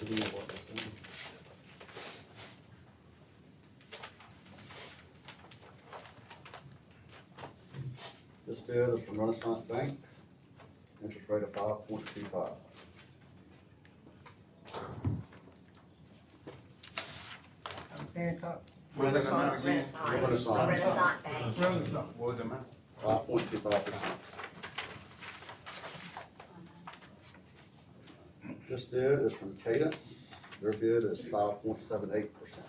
Do we know what we're doing? This bid is from Renaissance Bank, interest rate of five point two five. Renaissance, What was the amount again? Renaissance. Renaissance Bank. Renaissance. What was the amount? Five point two five percent. This bid is from Cadence, their bid is five point seven eight percent.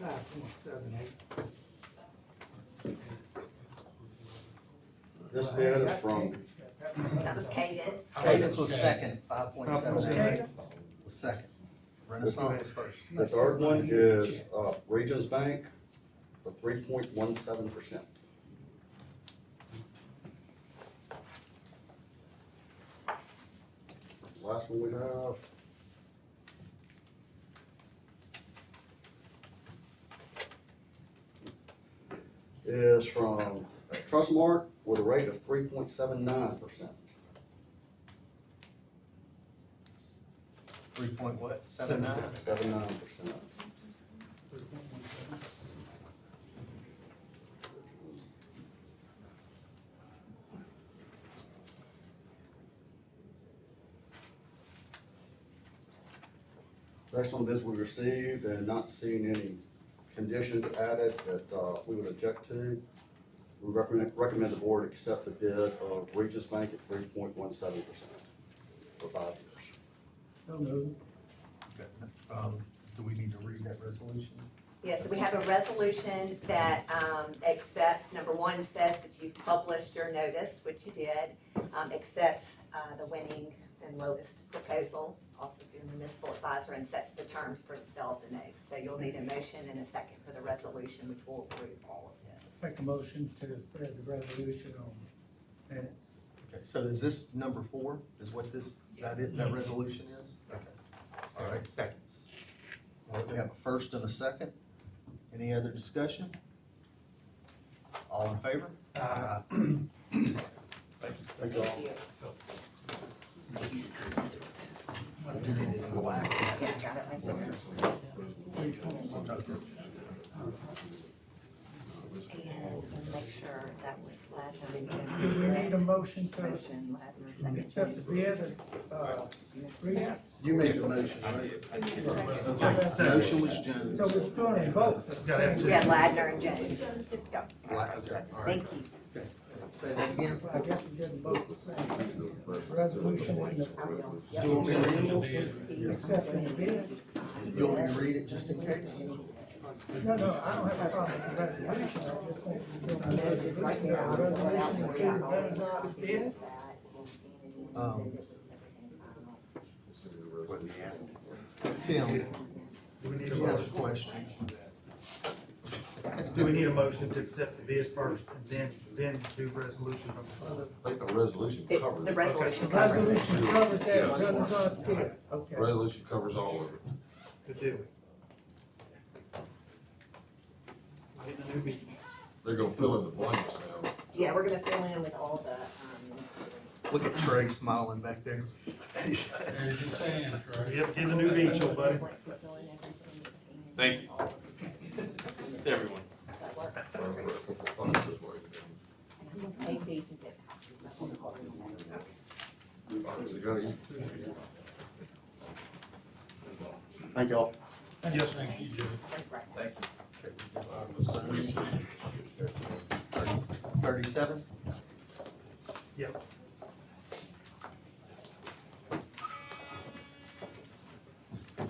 Five point seven eight. This bid is from That was Cadence. Cadence was second, five point seven eight Cadence? was second. Renaissance was first. The third one is, uh, Regions Bank for three point one seven percent. Last one we have. Is from Trustmark with a rate of three point seven nine percent. Three point what? Seven nine? Seven nine percent. Based on bids we received and not seeing any conditions added that, uh, we would object to, we recommend, recommend the board accept the bid of Regis Bank at three point one seven percent for five years. So moved. Okay. Um, do we need to read that resolution? Yes, we have a resolution that um, accepts, number one says that you've published your notice, which you did, um, accepts uh, the winning and lowest proposal off of your municipal advisor and sets the terms for the sale of the note. So you'll need a motion and a second for the resolution, which will approve all of this. Make a motion to spread the resolution on minutes. Okay, so is this number four, is what this, that is, that resolution is? Okay. All right, Mm-hmm. seconds. All right, we have a first and a second. Any other discussion? All in favor? Aye. Thank you all. Thank you. Do you need to go back? Yeah, got it right there. Okay. And to make sure that was Ladner and Do we need a Jones. motion to Motion, Ladner, second. accept the bid of, uh, Regis? You made the motion, right? Okay. Motion was Jones. So we're doing both. at the same Yeah, Ladner and Jones. Yeah. Like, okay, all right. Thank you. Say that again. I guess we're getting both the same. Resolution and the Do you want me to read it? accepting the bid. You want me to read it just in case? No, no, I don't have a problem with the resolution. I just want to do my resolution. Resolution to approve Renaissance bid. Um, Tim, he has a question. Do we need a motion to accept the bid first and then, then do resolution number four? I think the resolution The covers, the it. resolution covers it. Resolution covers that Renaissance bid, okay. resolution covers all of it. to do? Getting a new bid. They're gonna fill in the blanks now. Yeah, we're gonna fill in with all the, um, Look at Trey smiling back there. There's your sand, Troy. Yep, get a new bid, your buddy. once we fill in everything. Thank you. everyone. Maybe. They gotta eat. Thank y'all. Yes, sir. Thank you, Judge. Thirty-seven? Yep. All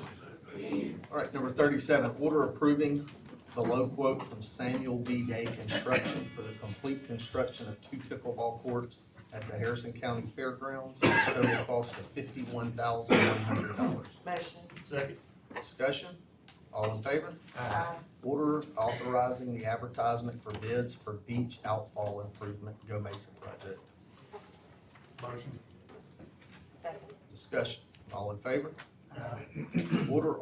right, number thirty-seven, order approving the low quote from Samuel B. Day Construction for the complete construction of two pickleball courts at the Harrison County Fairgrounds, at a total cost of fifty-one thousand one hundred dollars. Motion. Second. Discussion, all in favor? Order authorizing the advertisement for bids for beach outfall improvement Go Mason project. Motion. Second. Discussion, all in favor? Aye. Order